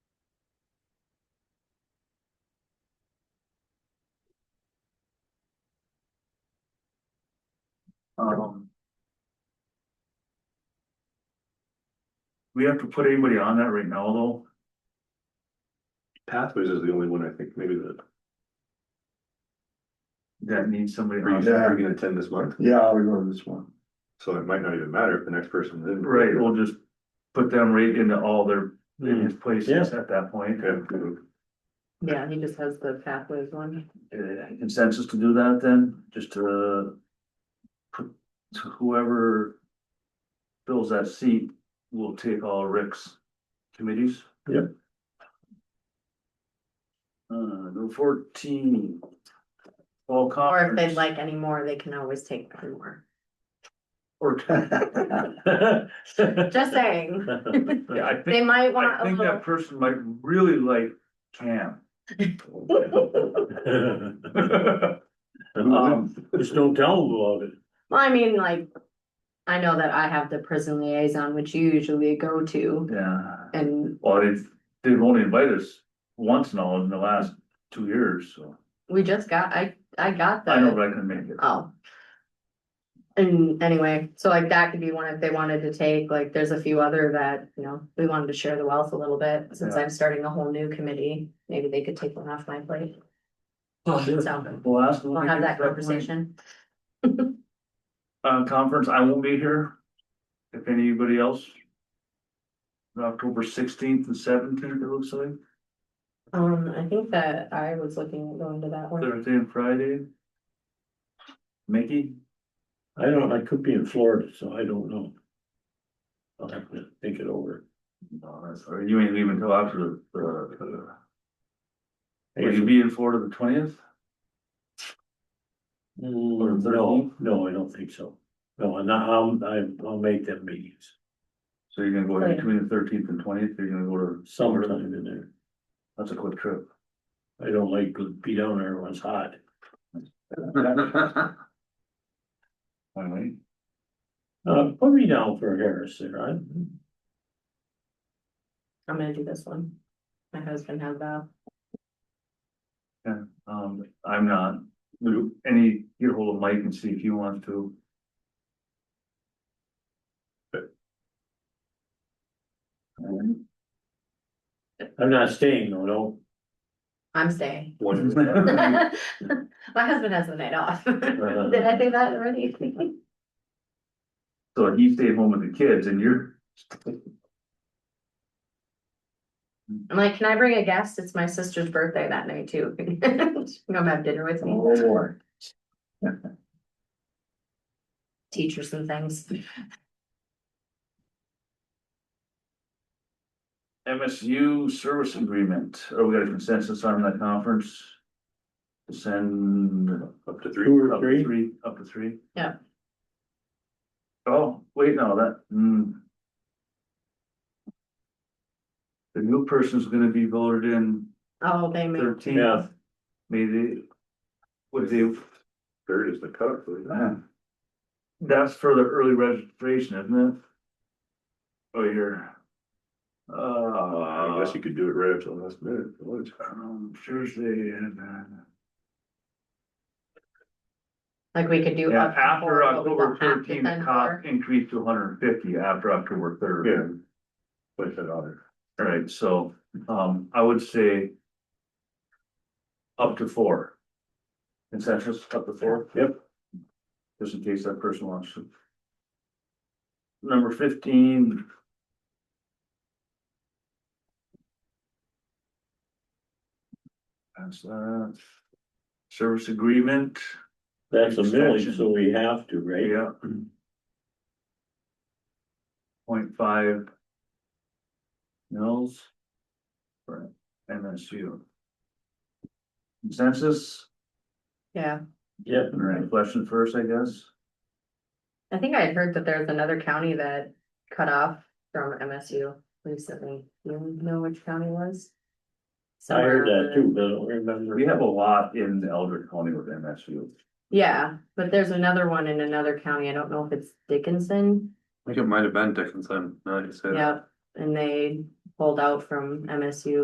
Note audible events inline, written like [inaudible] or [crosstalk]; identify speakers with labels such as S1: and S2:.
S1: Um. We have to put anybody on that right now, though.
S2: Pathways is the only one, I think, maybe that.
S1: That needs somebody
S2: Are
S1: on.
S2: you are you gonna attend this month?
S3: Yeah, I'll be going to this one.
S2: So it might not even matter if the next person is in.
S1: Right, we'll just put them right into all their
S3: Mm.
S4: Mm. [laughs]
S2: Hmm.
S1: previous places at that point. Uh,
S2: Okay, mm,
S5: Yeah, he just has the pathways one.
S1: Uh, Consensus to do that then, just to. Put to whoever. Fills that seat will take all Rick's committees.
S2: Yep.
S1: Uh, number fourteen. Fall
S5: Or if
S1: conference.
S5: they'd like any more, they can always take one more.
S1: Or. [laughs]
S5: Just saying,
S1: Yeah, I
S5: they
S1: think,
S5: might want
S1: I
S5: a
S1: think
S5: little.
S1: that person might really like Cam. Um,
S4: Just don't tell them about it.
S5: Well, I mean, like, I know that I have the prison liaison, which you usually go to,
S1: yeah,
S5: and
S1: well, they've, they've only invited us once now in the last two years, so.
S5: we just got, I, I got
S1: I know,
S5: the,
S1: but I can make it.
S5: oh. And anyway, so like that could be one if they wanted to take, like, there's a few other that, you know, we wanted to share the wealth a little bit, since
S1: Yeah.
S5: I'm starting a whole new committee, maybe they could take one off my plate. So,
S1: We'll ask. them
S5: we'll
S1: when we
S5: have
S1: get
S5: that
S1: to point.
S5: conversation.
S1: Uh, conference, I won't be here. If anybody else. October sixteenth and seventeenth, it looks like,
S5: Um, I think that I was looking at going to that one.
S1: Thursday and Friday. Mickey?
S4: I don't, I could be in Florida, so I don't know. I'll have to think it over.
S1: No, that's, all right. you ain't leaving till after the, uh, will you
S4: Mm,
S1: be in Florida the twentieth?
S3: Mm.
S4: No, no, I don't think so. No, and I- I'll, I- I'll make them meetings
S1: So you're gonna go in between the thirteenth and twentieth, you're gonna go to.
S4: sometime in there.
S1: That's a quick trip.
S4: I don't like to be down there when it's hot.
S1: Finally,
S4: Uh, put me down for Harris there. I,
S5: I'm gonna do this one. My husband has that.
S1: um, I'm not, Would any, get hold of Mike and see if you want to.
S4: I'm not staying though, no.
S5: I'm
S1: [laughs]
S5: staying.
S2: One,
S5: My husband has the night off. [laughs]
S1: Uh-huh.
S5: Did I say that already?
S1: So he stayed home with the kids and you're,
S5: I'm like, can I bring a guest? It's my sister's birthday that night too. [laughs] She can Come have dinner with me,
S3: Oh, boy.
S5: teach her some things.
S1: MSU service agreement, are we got a consensus on that conference? Send
S2: up to
S4: Two
S2: three.
S4: or
S1: up
S4: three.
S1: to three, up to three?
S5: Yeah.
S1: Oh, wait, no, that, hmm. The new person's gonna be voted in
S5: Oh, they may.
S1: thirteen,
S4: Yeah.
S1: maybe. Would they, uh,
S2: Third is the cutoff. isn't it?
S1: that's for the early registration, isn't it? Oh, you're. Uh.
S2: I guess you could do it right up to the last minute. if you wanted to.
S1: Um, Thursday and, uh.
S5: Like we could do.
S1: Yeah,
S5: up to four,
S1: after
S5: but we
S1: October
S5: don't have to
S1: thirteenth,
S5: send
S1: cost
S5: her.
S1: increased to hundred and fifty after October third.
S2: Yeah. Place that on there.
S1: Alright, so, um, I would say. Up to four. Consensus up to four? Yep. Just in case that person wants to. Number fifteen. That's that. Service agreement,
S4: That's a milling, so we have to, right?
S1: yeah. Point five. Mills. For MSU. Consensus,
S5: Yeah,
S4: Yep.
S1: All right. question first, I guess,
S5: I think I had heard that there's another county that cut off from MSU recently. You know which county it was?
S4: I heard
S5: Somewhere
S4: that too, but I don't remember.
S1: we have a lot in Eldred County with MSU.
S5: Yeah, but there's another one in another county. I don't know if it's Dickinson.
S2: I think it might have been Dickinson, now that you say
S5: Yep, and they pulled out from MSU